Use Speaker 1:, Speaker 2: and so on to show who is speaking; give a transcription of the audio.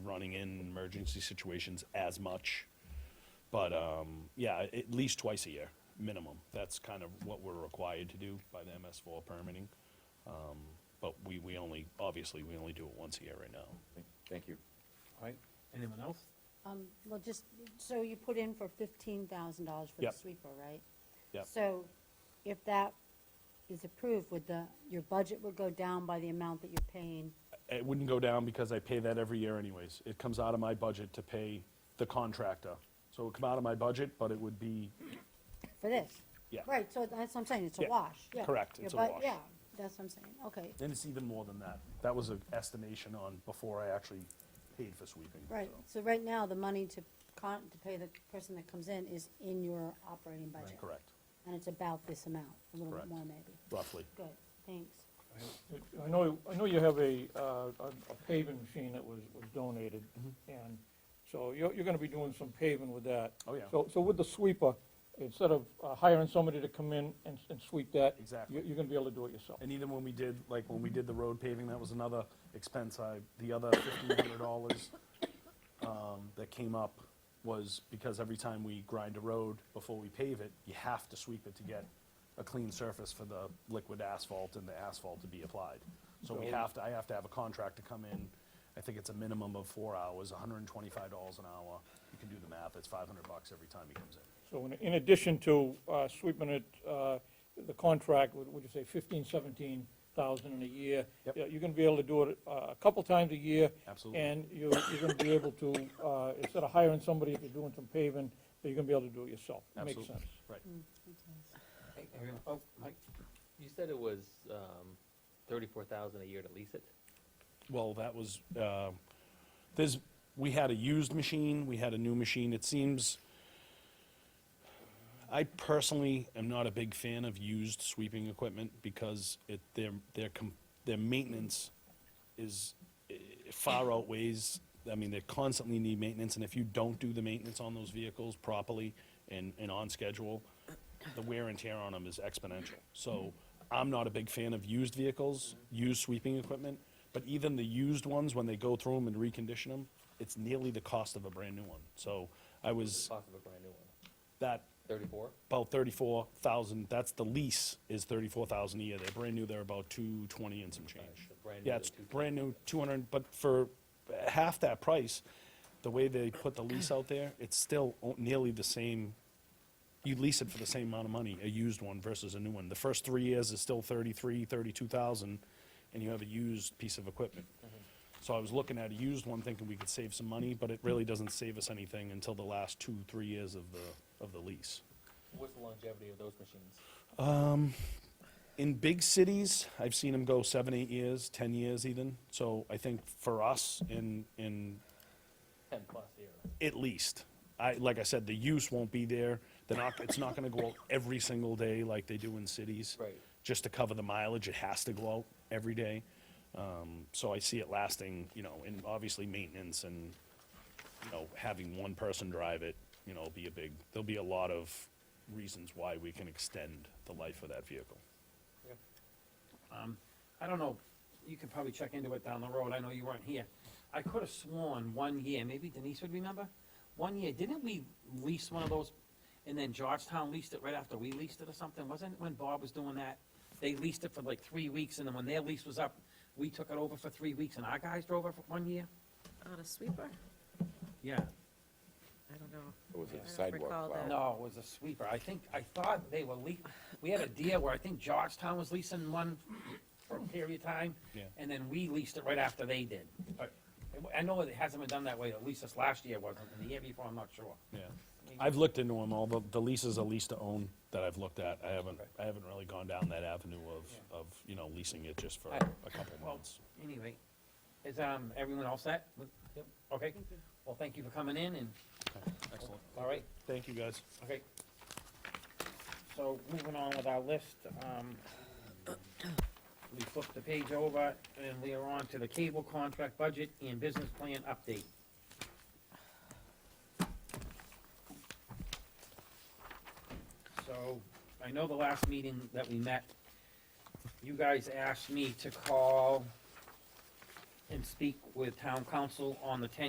Speaker 1: running in emergency situations as much. But, um, yeah, at least twice a year, minimum. That's kind of what we're required to do by the MS four permitting. Um, But we, we only, obviously, we only do it once a year right now.
Speaker 2: Thank you.
Speaker 3: All right, anyone else?
Speaker 4: Um, well, just, so you put in for fifteen thousand dollars for the
Speaker 1: Yep.
Speaker 4: sweeper, right?
Speaker 1: Yep.
Speaker 4: So if that is approved, would the, your budget would go down by the amount that you're paying?
Speaker 1: It wouldn't go down because I pay that every year anyways. It comes out of my budget to pay the contractor. So it would come out of my budget, but it would be,
Speaker 4: For this?
Speaker 1: Yeah.
Speaker 4: Right, so that's what I'm saying, it's a
Speaker 1: Yeah,
Speaker 4: wash, yeah.
Speaker 1: correct,
Speaker 4: Your
Speaker 1: it's a
Speaker 4: bu-
Speaker 1: wash.
Speaker 4: Yeah, that's what I'm saying, okay,
Speaker 1: and it's even more than that. That was an estimation on before I actually paid for sweeping.
Speaker 4: right,
Speaker 1: so.
Speaker 4: so right now, the money to con, to pay the person that comes in is in your operating budget.
Speaker 1: Correct,
Speaker 4: And it's about this amount, a little bit
Speaker 1: Correct.
Speaker 4: more maybe,
Speaker 1: roughly.
Speaker 4: good, thanks.
Speaker 5: I know, I know you have a, uh, a a paving machine that was, was donated, and so you're, you're gonna be doing some paving with that.
Speaker 1: Mm-hmm. Oh, yeah.
Speaker 5: So, so with the sweeper, instead of uh, hiring somebody to come in and, and sweep that.
Speaker 1: Exactly.
Speaker 5: You're, you're gonna be able to do it yourself.
Speaker 1: And even when we did, like, when we did the road paving, that was another expense I, the other fifteen hundred dollars um, that came up was because every time we grind a road before we pave it, you have to sweep it to get a clean surface for the liquid asphalt and the asphalt to be applied. So we have to, I have to have a contractor come in, I think it's a minimum of four hours, hundred and twenty-five dollars an hour. You can do the math, it's five hundred bucks every time he comes in.
Speaker 5: So in, in addition to uh, sweeping it, uh, the contract, would would you say fifteen, seventeen thousand in a year?
Speaker 1: Yep.
Speaker 5: Yeah, You're gonna be able to do it uh, a couple times a year.
Speaker 1: Absolutely.
Speaker 5: And you, you're gonna be able to, uh, instead of hiring somebody, if you're doing some paving, you're gonna be able to do it yourself. Makes
Speaker 1: Absolutely.
Speaker 5: sense.
Speaker 1: Right.
Speaker 3: Oh, Mike,
Speaker 6: You said it was um, thirty-four thousand a year to lease it?
Speaker 1: Well, that was, uh, there's, we had a used machine, we had a new machine. It seems, I personally am not a big fan of used sweeping equipment because it, their, their, com- their maintenance is eh, far outweighs, I mean, they constantly need maintenance, and if you don't do the maintenance on those vehicles properly and, and on schedule, the wear and tear on them is exponential. So I'm not a big fan of used vehicles, used sweeping equipment, but even the used ones, when they go through them and recondition them, it's nearly the cost of a brand-new one. So I was,
Speaker 6: Cost of a brand new one,
Speaker 1: that,
Speaker 6: thirty-four?
Speaker 1: about thirty-four thousand, that's the lease, is thirty-four thousand a year. They're brand new, they're about two twenty and some change.
Speaker 6: so brand
Speaker 1: Yeah,
Speaker 6: new,
Speaker 1: it's
Speaker 6: 220.
Speaker 1: brand new, two hundred, but for half that price, the way they put the lease out there, it's still o- nearly the same. You lease it for the same amount of money, a used one versus a new one. The first three years is still thirty-three, thirty-two thousand, and you have a used piece of equipment.
Speaker 6: Mm-hmm.
Speaker 1: So I was looking at a used one thinking we could save some money, but it really doesn't save us anything until the last two, three years of the, of the lease.
Speaker 6: What's the longevity of those machines?
Speaker 1: in big cities, I've seen them go seven, eight years, ten years even. So I think for us, in in
Speaker 6: Ten plus years.
Speaker 1: at least, I like I said, the use won't be there. They're not. It's not going to go out every single day like they do in cities.
Speaker 6: Right.
Speaker 1: Just to cover the mileage, it has to go out every day. Um, so I see it lasting, you know, and obviously maintenance and you know having one person drive it, you know, will be a big. There'll be a lot of reasons why we can extend the life of that vehicle.
Speaker 3: I don't know, you could probably check into it down the road, I know you weren't here. I could have sworn one year, maybe Denise would remember, one year, didn't we lease one of those? And then Georgetown leased it right after we leased it or something, wasn't it when Bob was doing that? They leased it for like three weeks, and then when their lease was up, we took it over for three weeks, and our guys drove it for one year?
Speaker 7: On a sweeper?
Speaker 3: Yeah.
Speaker 7: I don't know.
Speaker 2: Or was
Speaker 7: I
Speaker 2: it
Speaker 7: don't
Speaker 2: sidewalk
Speaker 7: recall
Speaker 2: plow?
Speaker 7: that.
Speaker 3: No, it was a sweeper. I think, I thought they were lea, we had a deal where I think Georgetown was leasing one for a period of time.
Speaker 1: Yeah.
Speaker 3: And then we leased it right after they did. But I know it hasn't been done that way, at least this last year wasn't, and the year before, I'm not sure.
Speaker 1: Yeah, I've looked into them all, the, the leases are lease to own that I've looked at, I haven't, I haven't really gone down that avenue of, of, you know, leasing it just for
Speaker 3: I-
Speaker 1: a couple
Speaker 3: well,
Speaker 1: months.
Speaker 3: Anyway, is, um, everyone all set?
Speaker 6: Yep.
Speaker 3: Okay, well, thank you for coming in and,
Speaker 1: Excellent,
Speaker 3: all right,
Speaker 1: thank you guys.
Speaker 3: okay. So moving on with our list, um, we flipped the page over and we are on to the cable contract budget and business plan update. So, I know the last meeting that we met, you guys asked me to call and speak with town council on the ten